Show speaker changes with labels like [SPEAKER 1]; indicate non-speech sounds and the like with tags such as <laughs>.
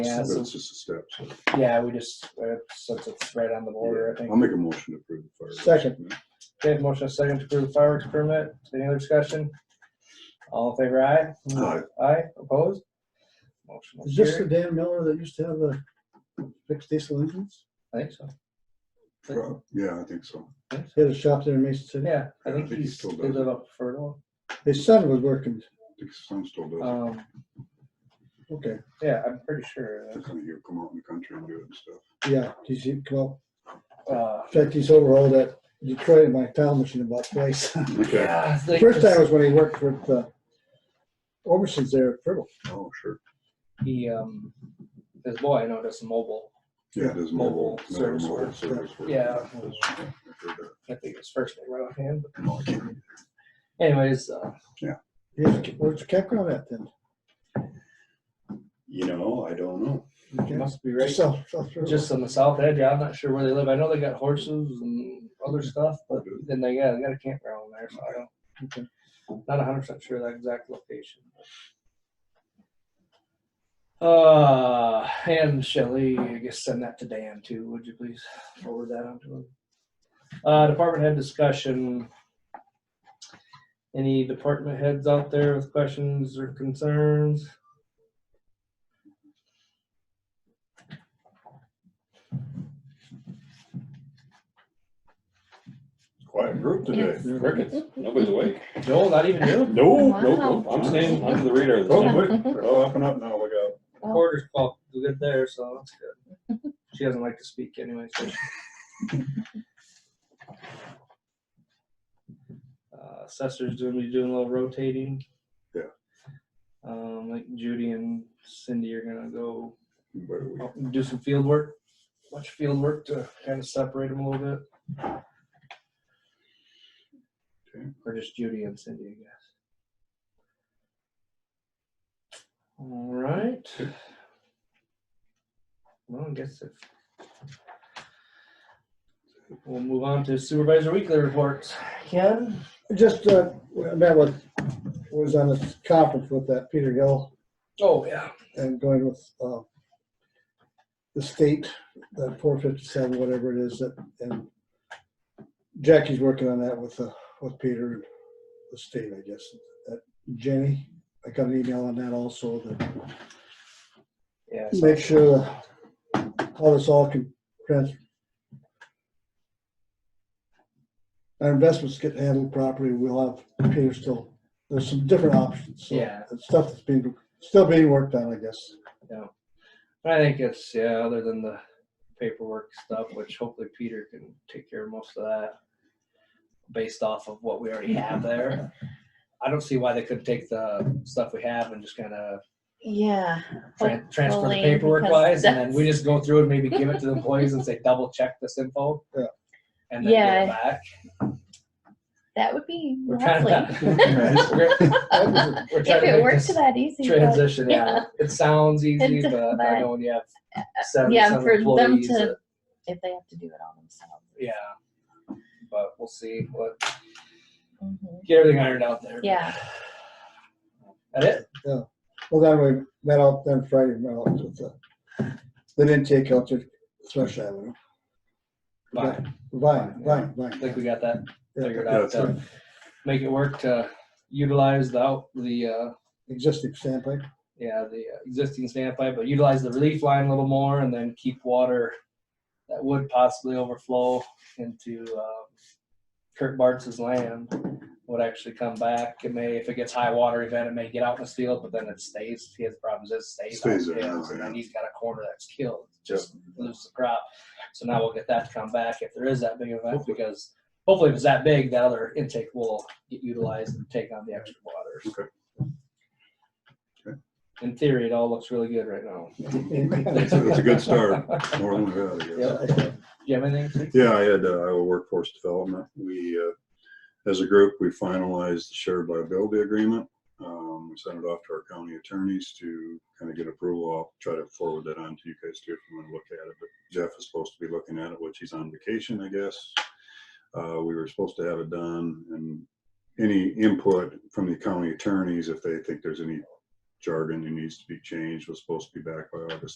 [SPEAKER 1] Yeah,
[SPEAKER 2] That's
[SPEAKER 1] so,
[SPEAKER 2] just a step. so.
[SPEAKER 1] yeah, we just, uh, since it's right on the border, I think.
[SPEAKER 2] I'll make a motion to approve. the fireworks.
[SPEAKER 1] Second. Okay, motion is second to approve fireworks permit. Any other discussion? All in favor, aye?
[SPEAKER 2] Aye.
[SPEAKER 1] Aye, opposed? Motion will
[SPEAKER 3] Is this the
[SPEAKER 1] carry.
[SPEAKER 3] Dan Miller that used to have the fixed diesel engines?
[SPEAKER 1] I think so.
[SPEAKER 2] Pro- Yeah, I think so.
[SPEAKER 3] He had a shop there in Mason City.
[SPEAKER 1] Yeah, I
[SPEAKER 2] Yeah,
[SPEAKER 1] think
[SPEAKER 2] he
[SPEAKER 1] he's,
[SPEAKER 2] still
[SPEAKER 1] they
[SPEAKER 2] does.
[SPEAKER 1] live up Fertile.
[SPEAKER 3] His son was working,
[SPEAKER 2] I think some still does. it.
[SPEAKER 1] Um,
[SPEAKER 3] okay,
[SPEAKER 1] yeah, I'm pretty sure.
[SPEAKER 2] They're kind of here, come out in the country and do it and stuff.
[SPEAKER 3] yeah, he's, he- well,
[SPEAKER 1] Uh,
[SPEAKER 3] in fact, he's overhauled that Detroit at my town machine about <laughs> twice.
[SPEAKER 2] Okay.
[SPEAKER 1] yeah, it's like-
[SPEAKER 3] First time was when he worked with, uh, Oberson's there at Fertile.
[SPEAKER 2] Oh, sure.
[SPEAKER 1] He, um, his boy, I know, does some mobile.
[SPEAKER 2] Yeah, there's
[SPEAKER 1] Mobile
[SPEAKER 2] mobile. another
[SPEAKER 1] service
[SPEAKER 2] mobile
[SPEAKER 1] work.
[SPEAKER 2] service work.
[SPEAKER 1] Yeah.
[SPEAKER 2] That's- yeah, I heard that.
[SPEAKER 1] I think it's first name right offhand. but
[SPEAKER 2] No, I can't.
[SPEAKER 1] Anyways, uh,
[SPEAKER 3] He's- Where's the campground at then?
[SPEAKER 2] You know, I don't know.
[SPEAKER 1] he
[SPEAKER 3] Okay.
[SPEAKER 1] must be right.
[SPEAKER 3] South- South Fertile.
[SPEAKER 1] just on the south edge. I'm not sure where they live. I know they got horses and other stuff, but then they got, they got a campground there, so I don't.
[SPEAKER 3] Okay.
[SPEAKER 1] Not hundred percent sure that exact location. Uh, and Shelley, I guess send that to Dan too, would you please forward that on to him? Uh, department head discussion. Any department heads out there with questions or concerns?
[SPEAKER 2] Quiet group today.
[SPEAKER 4] Yes. Crickets. Nobody's awake.
[SPEAKER 1] No, not even you.
[SPEAKER 2] No,
[SPEAKER 4] no, no. I'm staying under the radar. this
[SPEAKER 2] Oh,
[SPEAKER 4] time.
[SPEAKER 2] wait. Oh, up and up now, look out.
[SPEAKER 4] Oh.
[SPEAKER 1] Quarters clock is good there, so that's good. <laughs> She doesn't like to speak anyway. So. Uh, Assessor's doing, we doing a little rotating.
[SPEAKER 2] Yeah.
[SPEAKER 1] Um, like Judy and Cindy are gonna go
[SPEAKER 2] By
[SPEAKER 1] <laughs>
[SPEAKER 2] the way,
[SPEAKER 1] out and do some field work, much field work to kind of separate them a little bit.
[SPEAKER 2] Okay.
[SPEAKER 1] Or just Judy and Cindy, I guess. All right. Well, I guess if. We'll move on to supervisor weekly reports. Ken?
[SPEAKER 3] Just, uh, I met with, was on a conference with that Peter Hill
[SPEAKER 1] Oh, yeah.
[SPEAKER 3] and going with uh, the state, that four fifty-seven, whatever it is, that, and Jackie's working on that with, uh, with Peter, and the state, I guess. Uh, Jenny, I got an email on that also, that
[SPEAKER 1] Yeah. so-
[SPEAKER 3] make sure how this all can transfer. Our investments get handled properly, we'll have Peter still, there's some different options, so.
[SPEAKER 1] Yeah.
[SPEAKER 3] it's Stuff that's being, still being worked on, I guess.
[SPEAKER 1] I think it's, yeah, other than the paperwork stuff, which hopefully Peter can take care of most of that based off of what we already have there. I don't see why they couldn't take the stuff we have and just kind of
[SPEAKER 4] Yeah.
[SPEAKER 1] tran- transfer the
[SPEAKER 4] Hopefully,
[SPEAKER 1] paperwork
[SPEAKER 4] because
[SPEAKER 1] wise, and then
[SPEAKER 4] that's-
[SPEAKER 1] we just go through and maybe give it to the employees and say, double check this info.
[SPEAKER 3] Yeah.
[SPEAKER 1] And then get it
[SPEAKER 4] Yeah.
[SPEAKER 1] back.
[SPEAKER 4] That would be
[SPEAKER 1] We're trying
[SPEAKER 4] lovely.
[SPEAKER 1] <laughs> to.
[SPEAKER 4] <laughs>
[SPEAKER 1] we're- we're trying
[SPEAKER 4] If
[SPEAKER 1] to
[SPEAKER 4] it
[SPEAKER 1] make
[SPEAKER 4] worked
[SPEAKER 1] this
[SPEAKER 4] that easy. but-
[SPEAKER 1] Transition, yeah.
[SPEAKER 4] Yeah.
[SPEAKER 1] It sounds easy,
[SPEAKER 4] It does,
[SPEAKER 1] but I
[SPEAKER 4] but-
[SPEAKER 1] know when you have seven,
[SPEAKER 4] Yeah,
[SPEAKER 1] seven
[SPEAKER 4] for them
[SPEAKER 1] uh, employees. uh,
[SPEAKER 4] to-
[SPEAKER 1] it-
[SPEAKER 4] If they have to do it all themselves.
[SPEAKER 1] Yeah. But we'll see what
[SPEAKER 4] Mhm.
[SPEAKER 1] get everything ironed out there.
[SPEAKER 4] Yeah.
[SPEAKER 1] That it?
[SPEAKER 3] Well, then we met out, then Friday, met out with the, they didn't take out to Thrush Avenue.
[SPEAKER 1] Fine.
[SPEAKER 3] Vine, Vine,
[SPEAKER 1] I think we
[SPEAKER 3] Vine.
[SPEAKER 1] got that
[SPEAKER 3] Yeah,
[SPEAKER 1] figured
[SPEAKER 2] Yeah,
[SPEAKER 1] out
[SPEAKER 2] that's
[SPEAKER 1] to make it work to utilize the out the uh
[SPEAKER 3] Existing standpipe.
[SPEAKER 1] yeah, the uh, existing standpipe, but utilize the relief line a little more and then keep water that would possibly overflow into um, Kurt Bartz's land would actually come back. It may, if it gets high water event, it may get out in the field, but then it stays. He has problems, it stays. out in
[SPEAKER 2] Stays there,
[SPEAKER 1] fields, And then
[SPEAKER 2] yeah.
[SPEAKER 1] he's got a corner that's killed, just lose the crop. So now we'll get that to come back if there is that big event, because hopefully if it's that big, that other intake will get utilized and take on the extra water. In theory, it all looks really good right now.
[SPEAKER 2] That's a- that's a good start. Northern Valley, yes.
[SPEAKER 1] Yeah. Do you have anything?
[SPEAKER 2] Yeah, I had uh, Iowa Workforce Development. We, uh, as a group, we finalized the shared liability agreement. Um, We sent it off to our county attorneys to kind of get approval. I'll try to forward that on to you guys too if you want to look at it. But Jeff is supposed to be looking at it, which he's on vacation, I guess. Uh, We were supposed to have it done and any input from the county attorneys, if they think there's any jargon that needs to be changed, was supposed to be back by August